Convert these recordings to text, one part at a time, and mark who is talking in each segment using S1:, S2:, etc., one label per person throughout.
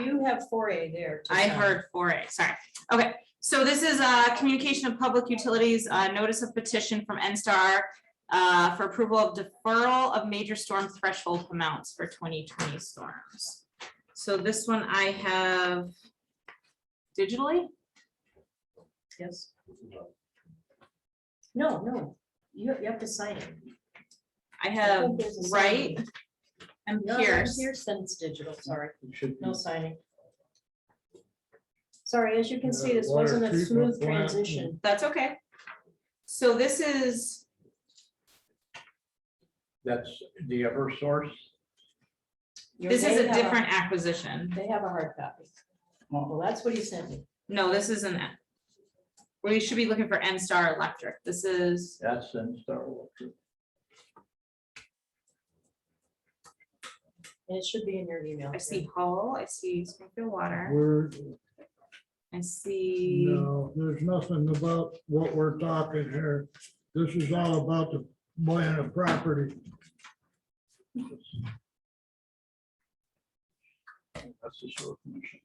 S1: you have four A there. to
S2: I
S1: sign.
S2: heard four A, sorry. Okay, so this is a communication of public utilities, uh, notice of petition from NSTAR uh, for approval of deferral of major storm threshold amounts for twenty twenty storms. So this one I have digitally?
S1: Yes. No, no, you, you have to sign it.
S2: I
S1: I
S2: have
S1: think there's a sign.
S2: Wright and
S1: No,
S2: Pierce.
S1: Pierce, then it's digital, sorry,
S3: You should
S1: no
S3: be
S1: signing. Sorry, as you can see, this
S3: Yeah, water
S1: wasn't a
S3: treatment
S1: smooth
S3: plant.
S1: transition.
S2: That's okay. So this is,
S3: That's the ever source.
S2: this is
S1: They
S2: a
S1: have
S2: different acquisition.
S1: They have a hard copy.
S3: Oh.
S1: Well, that's what he sent me.
S2: No, this isn't it. We should be looking for NSTAR Electric. This is.
S3: That's in Star Electric.
S1: And it should be in your email.
S2: I see Hull, I see Springfield Water,
S4: We're,
S2: I see,
S4: no, there's nothing about what we're talking here. This is all about the plan of property.
S3: That's the sewer commission.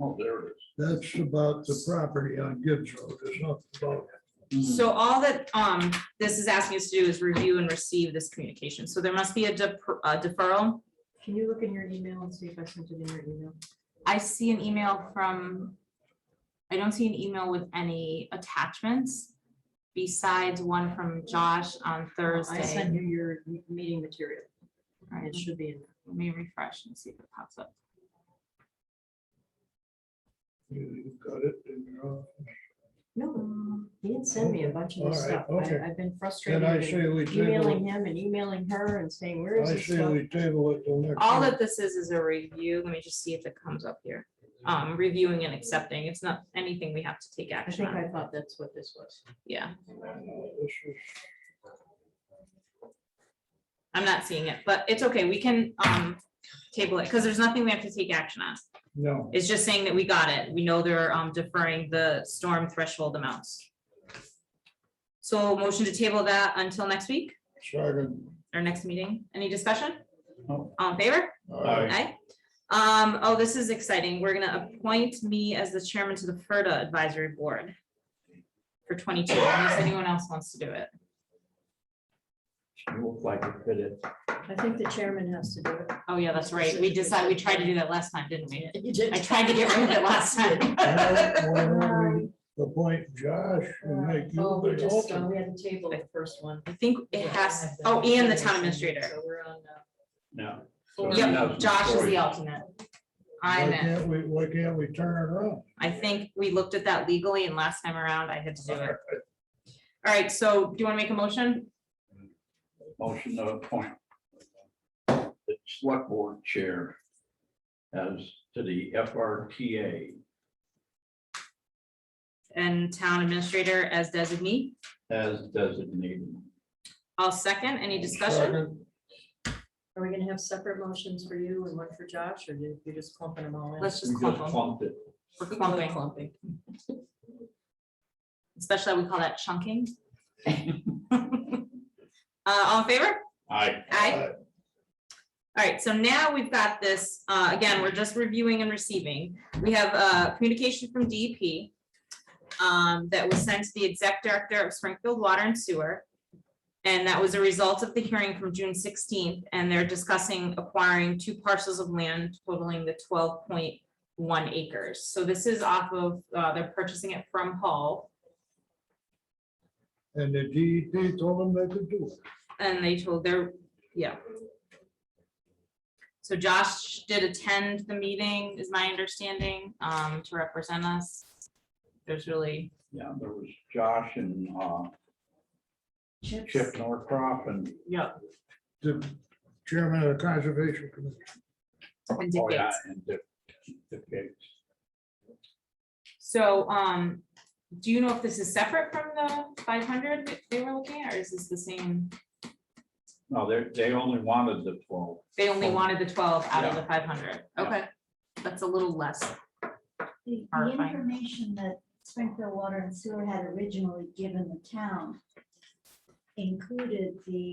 S3: Oh, there it
S4: That's about the property on Gibbs Road. It's not about,
S3: is.
S2: so all that, um, this is asking us to do is review and receive this communication, so there must be a de- a deferral.
S1: Can you look in your email and see if I sent it in your email?
S2: I see an email from, I don't see an email with any attachments besides one from Josh on
S1: I sent
S2: Thursday.
S1: you your m- meeting material. and It should be in. there.
S2: Let me refresh and see if it pops up.
S4: you got it in your own.
S1: No, he didn't send me a bunch of this
S4: All right,
S1: stuff. I-
S4: okay.
S1: I've been
S4: And
S1: frustrated.
S4: I
S1: with
S4: say we
S1: Emailing
S4: table,
S1: him and emailing her and saying, where
S4: it.
S1: is
S4: I
S1: this
S4: say
S1: stuff?
S4: we table it till next.
S2: All
S4: week.
S2: that this is, is a review, let me just see if it comes up here, um, reviewing and accepting, it's not anything we have to take
S1: I
S2: action
S1: think
S2: on,
S1: I thought that's what this was.
S2: yeah.
S4: This is-
S2: I'm not seeing it, but it's okay, we can um table it, because there's nothing we have to take action on.
S4: No,
S2: It's just saying that we got it, we know they're um deferring the storm threshold amounts. So motion to table that until next week,
S4: second.
S2: or next meeting, any discussion?
S3: No.
S2: All in favor?
S3: Aye.
S2: Aye. Um, oh, this is exciting, we're gonna appoint me as the chairman to the FERDA Advisory Board. For twenty-two, unless anyone else wants to do it,
S3: You look like you fit it.
S1: I think the chairman has to do
S2: oh yeah, that's right, we decided, we tried to do that last time, didn't we?
S1: it. You did.
S2: I tried to get rid of it last time.
S4: Appoint Josh and make
S1: Oh, we
S4: you the
S1: just, uh,
S4: alternate.
S1: we had to table the first one.
S2: I think it has, oh, and the town administrator.
S1: So we're on. uh,
S3: No.
S1: four.
S2: Yep, Josh is the alternate.
S4: Why
S2: I'm in.
S4: can't we, why can't we turn it around?
S2: I think we looked at that legally and last time around I had to do it. All right, so do you want to make a motion?
S3: Motion to appoint. The select board chair. As to the FRTA
S2: And town administrator as designee.
S3: as designated.
S2: I'll second. Any discussion?
S4: Second.
S1: Are we gonna have separate motions for you and one for Josh, or you- you're just clumping them all in?
S2: Let's just
S3: We
S2: clump
S3: just
S2: them.
S3: clumped it.
S2: We're
S1: We're
S2: clumping,
S1: Clumping.
S2: especially we call that chunking. Uh, all in favor?
S3: Aye.
S2: Aye. All right, so now we've got this, uh, again, we're just reviewing and receiving. We have a communication from DEP um, that was sent to the exec director of Springfield Water and Sewer. And that was a result of the hearing from June sixteenth, and they're discussing acquiring two parcels of land totaling the twelve point one acres. So this is off of, uh, they're purchasing it from Hull,
S4: And the DEP told them they could do it.
S2: and they told their, yeah. So Josh did attend the meeting, is my understanding, um, to represent us. There's really,
S3: Yeah, there was Josh and uh, Chip Norcroft and,
S2: yeah,
S4: The chairman of the conservation commission.
S2: and
S3: oh yeah,
S2: dictates.
S3: and Dick, Dick Gates.
S2: So, um, do you know if this is separate from the five hundred that they were looking at, or is this the same?
S3: No, they, they only wanted the twelve.
S2: They only wanted the twelve out of
S3: Yeah.
S2: the five hundred,
S3: Yeah.
S2: okay, that's a little less.
S5: The the
S2: Horrifying.
S5: information that Springfield Water and Sewer had originally given the town included the